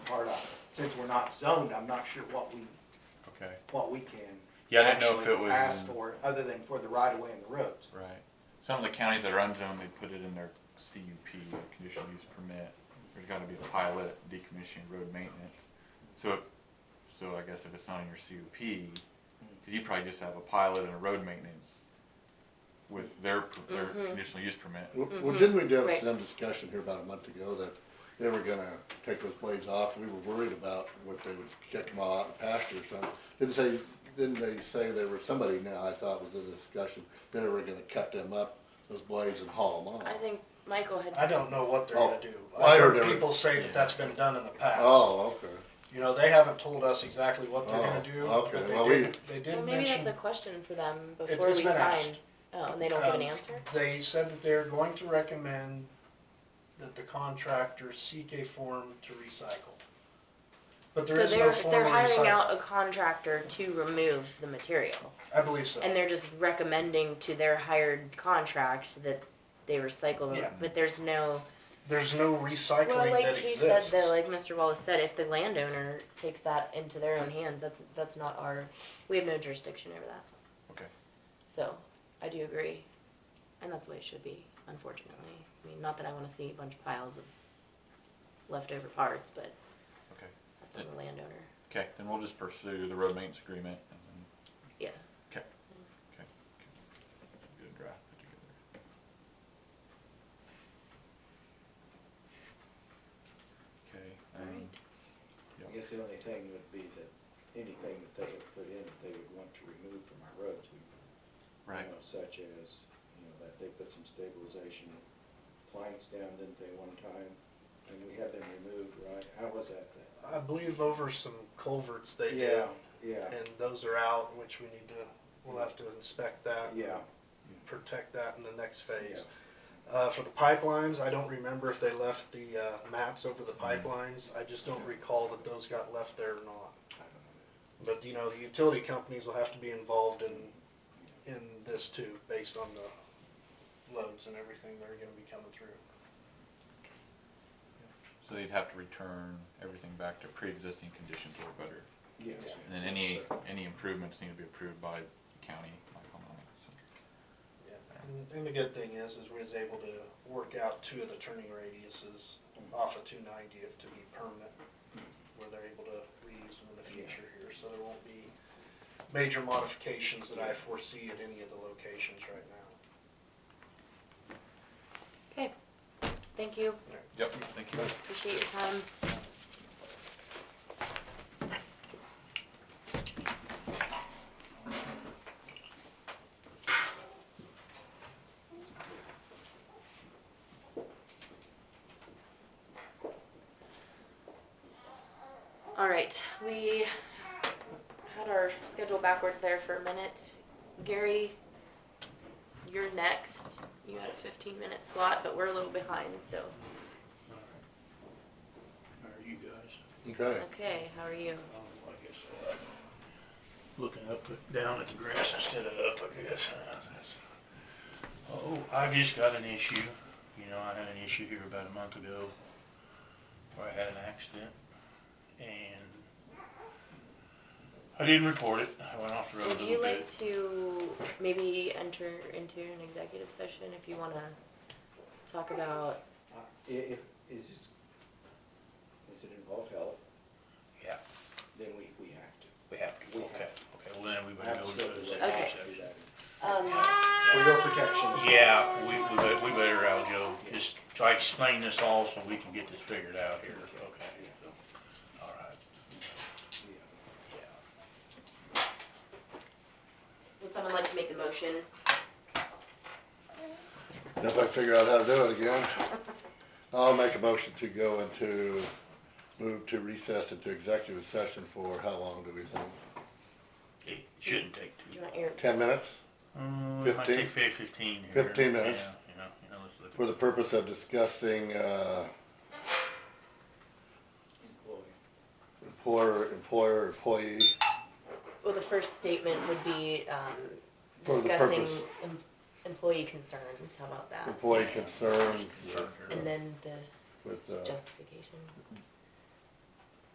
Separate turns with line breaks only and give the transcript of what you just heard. since we're not zoned, I'm not sure what we,
Okay,
what we can.
Yeah, I didn't know if
actually
it was
Ask
in-
for, other than for the right of way and the roads.
right. Some of the counties that are unzoned, they put it in their CUP, their conditional use permit. There's gotta be a pilot decommissioning road maintenance. So, if- so I guess if it's not in your CUP, cause you probably just have a pilot and a road maintenance with their, their
Mhm.
conditional use permit.
Well, well, didn't we have
Mm-hmm. Right.
some discussion here about a month ago that they were gonna take those blades off? We were worried about what they would kick them all out in pasture or something. Didn't say, didn't they say there were, somebody now I thought was in the discussion, that they were gonna cut them up, those blades and haul them off?
I think Michael had.
I don't know what they're
Oh,
gonna do.
well, I
I
heard
heard
they were-
people say that that's been done in the past.
Oh, okay.
You know, they haven't told us exactly what they're gonna
Oh,
do,
okay.
but
Well,
they
we-
did, they
Well,
did
maybe that's a
mention,
question for them
It's-
before
it's
we
been
sign.
asked.
Oh, and they don't give an
Um,
answer?
they said that they're going to recommend that the contractor seek a form to recycle. But there
So
is no
they're,
form
they're
of
hiring
recycle.
out a contractor to remove the material.
I believe so.
And they're just recommending to their hired contract that they recycle
Yeah.
them, but there's no.
There's no
Well,
recycling
like
that
he said,
exists.
though, like Mr. Wallace said, if the landowner takes that into their own hands, that's, that's not our, we have no jurisdiction over that.
Okay.
So, I do agree, and that's the way it should be, unfortunately. I mean, not that I wanna see a bunch of piles of leftover parts, but
Okay.
that's on the landowner,
Okay, then we'll just pursue the road maintenance agreement and then
yeah.
get a draft put together. Okay. um,
I guess the only thing would be that anything that they had put in, that they would want to remove from our roads, we
Right,
you know, such as, you know, that they put some stabilization planks down, didn't they, one time? And we had them removed, right? How was that then?
I believe over some culverts they did,
Yeah, yeah,
and those are out, which we need to, we'll have to inspect that.
yeah.
protect that in the next phase. Uh, for the pipelines, I don't remember if they left the, uh, mats over the pipelines, I just don't recall that those got left there or not. But, you know, the utility companies will have to be involved in, in this too, based on the loads and everything that are gonna be coming through.
so they'd have to return everything back to pre-existing conditions or better.
Yes.
And then any, any improvements need to be approved by the county, like on that.
And, and the good thing is, is we was able to work out two of the turning radiuses off of two ninetieth to be permanent, where they're able to reuse them in the future here, so there won't be major modifications that I foresee at any of the locations right now.
Okay, thank you,
Yep, thank you.
appreciate your time. All right, we had our schedule backwards there for a minute. Gary, you're next. You had a fifteen minute slot, but we're a little behind, so,
How are you guys?
Okay.
okay, how are you?
Oh, I guess uh, looking up, at- down at the grass instead of up, I guess. Uh, that's- Oh, I just got an issue. You know, I had an issue here about a month ago where I had an accident and I didn't report it. I went off the road a
Would
little bit.
you like to maybe enter into an executive session if you wanna talk about,
Uh, I- If, is this, is it involved health?
Yeah,
Then we, we have
we have to.
We
Okay,
have
okay. Well, then we
to.
better go to the
Absolutely.
executive
Okay.
session.
um,
For your protection. as well.
Yeah, we, we better, we better, Aljo, just try to explain this all so we can get this figured out here, okay? All right,
Yeah.
yeah.
would someone like to make the motion?
If I figure out how to do it again, I'll make a motion to go into, move to recess into executive session for how long do we think?
It shouldn't take
Do
too
you
long.
want your,
Ten minutes?
Mm, it might take fif- fifteen here.
15 minutes.
Yeah, You know, you know, let's look.
For the
at-
purpose of discussing, uh,
Employee.
employer, employer, employee.
well, the first statement would be, um,
For the
discussing
purpose.
em- employee concerns, how about that?
employee concern
Concern here.
And then the
with, uh,
justification.